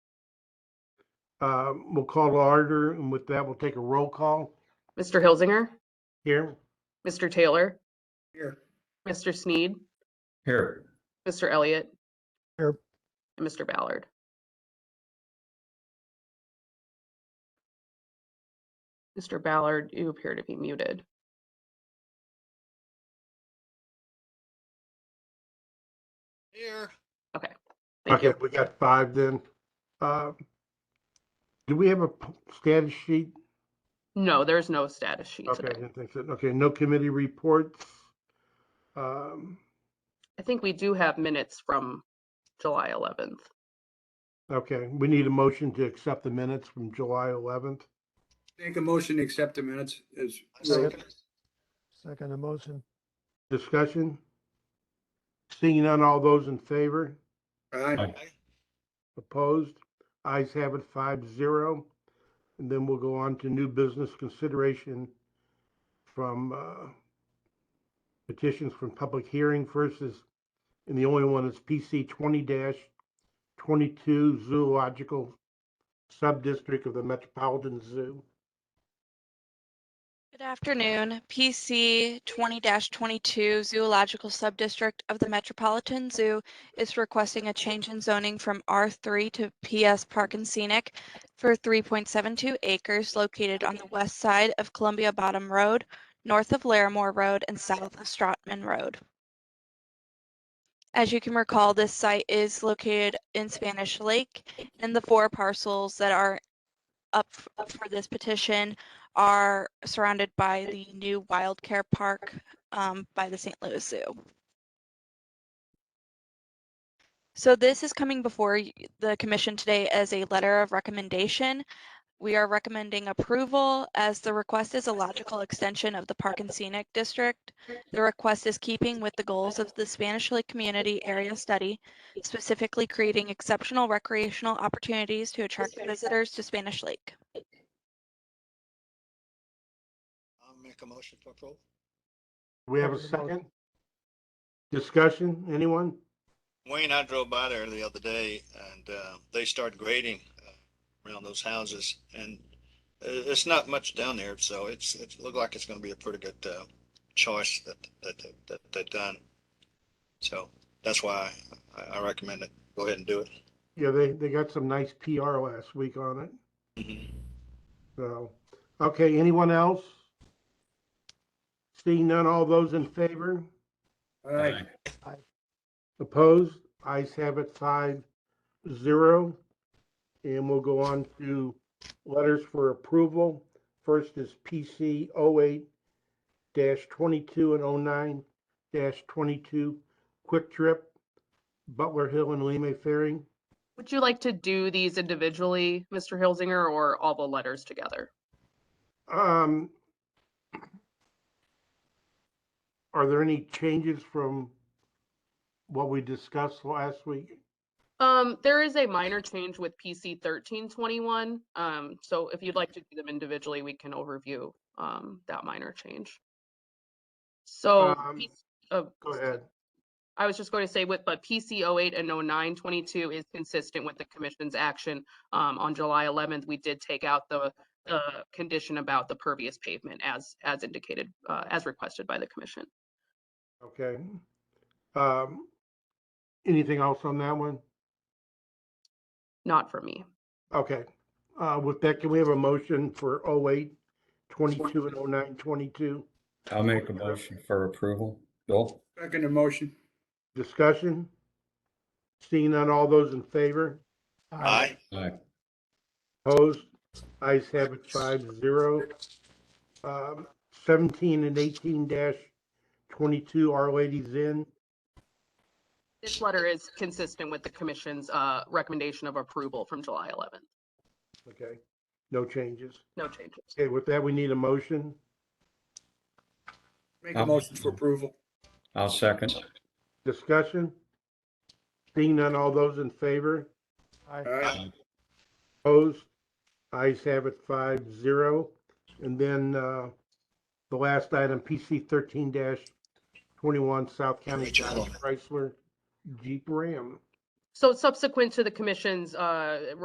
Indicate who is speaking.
Speaker 1: Uh, We'll call to order, and with that, we'll take a roll call
Speaker 2: Mr. Hilsinger,
Speaker 1: here.
Speaker 2: Mr. Taylor,
Speaker 1: Here.
Speaker 2: Mr. Sneed,
Speaker 3: Here,
Speaker 2: Mr. Elliott.
Speaker 1: Here.
Speaker 2: And Mr. Ballard. Mr. Ballard, you appear to be muted.
Speaker 4: Here.
Speaker 2: Thank
Speaker 1: Okay,
Speaker 2: you.
Speaker 1: we got five then. Uh, Do we have a p- status sheet?
Speaker 2: No, there's no status sheet
Speaker 1: Okay, I
Speaker 2: today.
Speaker 1: didn't think so. Okay, no committee reports. Um,
Speaker 2: I think we do have minutes from July 11th.
Speaker 1: Okay, we need a motion to accept the minutes from July 11th.
Speaker 5: Make a motion to accept the minutes as,
Speaker 4: Second.
Speaker 6: Second emotion,
Speaker 1: Discussion? Seeing none, all those in favor?
Speaker 5: aye,
Speaker 3: Aye.
Speaker 1: Opposed? Eyes have it five zero. And then we'll go on to new business consideration from uh, petitions from public hearing versus, and the only one is PC twenty twenty-two zoological subdistrict of the Metropolitan Zoo.
Speaker 7: Good afternoon. PC 20-22 Zoological Subdistrict of the Metropolitan Zoo is requesting a change in zoning from R3 to PS Park and Scenic for 3.72 acres located on the west side of Columbia Bottom Road, north of Larimore Road, and south of Stratman Road. As you can recall, this site is located in Spanish Lake, and the four parcels that are up f- up for this petition are surrounded by the new Wild Care Park um, by the St. Louis Zoo. So this is coming before y- the commission today as a letter of recommendation. We are recommending approval as the request is a logical extension of the Park and Scenic District. The request is keeping with the goals of the Spanish Lake Community Area Study, specifically creating exceptional recreational opportunities to attract visitors to Spanish Lake.
Speaker 4: I'll make a motion to approve.
Speaker 1: Do we have a second? Discussion, anyone?
Speaker 4: Wayne, I drove by there the other day and uh, they start grading uh, around those houses and i- it's not much down there, so it's, it looked like it's gonna be a pretty good uh, choice that, that, that- that they've done. So that's why I, I recommend it. Go ahead and do it.
Speaker 1: Yeah, they, they got some nice PR last week on it. So, okay, anyone else? Seeing none, all those in favor?
Speaker 5: aye,
Speaker 1: Opposed? Eyes have it five zero. And we'll go on to letters for approval. First is oh PC 08 22 and 09 22, Quick Trip, Butler Hill and Lima Ferry.
Speaker 2: Would you like to do these individually, Mr. Hilsinger, or all the letters together?
Speaker 1: Um, are there any changes from what we discussed last week?
Speaker 2: Um, there is a minor change with PC thirteen twenty-one. Um, so if you'd like to do them individually, we can overview, um, that minor change. So,
Speaker 1: Um,
Speaker 2: PC uh,
Speaker 1: Go ahead.
Speaker 2: I was just going to say with, but PC 08 and 0922 is consistent with the commission's action. Um, on July 11th, we did take out the, the condition about the pervious pavement as, as indicated, uh, as requested by the commission.
Speaker 1: Okay. Um, anything else on that one?
Speaker 2: Not for me.
Speaker 1: Okay. Uh, with that, can we have a motion for 08, 22, and 09, 22?
Speaker 3: I'll make a motion for approval. Bill?
Speaker 5: second emotion,
Speaker 1: Discussion? Seeing none, all those in favor?
Speaker 4: Aye.
Speaker 3: Aye.
Speaker 1: Opposed? Eyes have it five zero. Um, Seventeen and eighteen dash twenty-two, Our Lady's Inn.
Speaker 2: This letter is consistent with the commission's, uh, recommendation of approval from July 11th.
Speaker 1: Okay, no changes.
Speaker 2: No changes.
Speaker 1: Okay, with that, we need a motion.
Speaker 5: make a motion for approval,
Speaker 3: I'll second.
Speaker 1: Discussion? Seeing none, all those in favor?
Speaker 5: aye,
Speaker 1: Opposed? Eyes have it five zero. And then, uh, the last item, PC thirteen dash twenty-one, South County Chrysler Jeep Ram.
Speaker 2: So subsequent to the commission's, uh,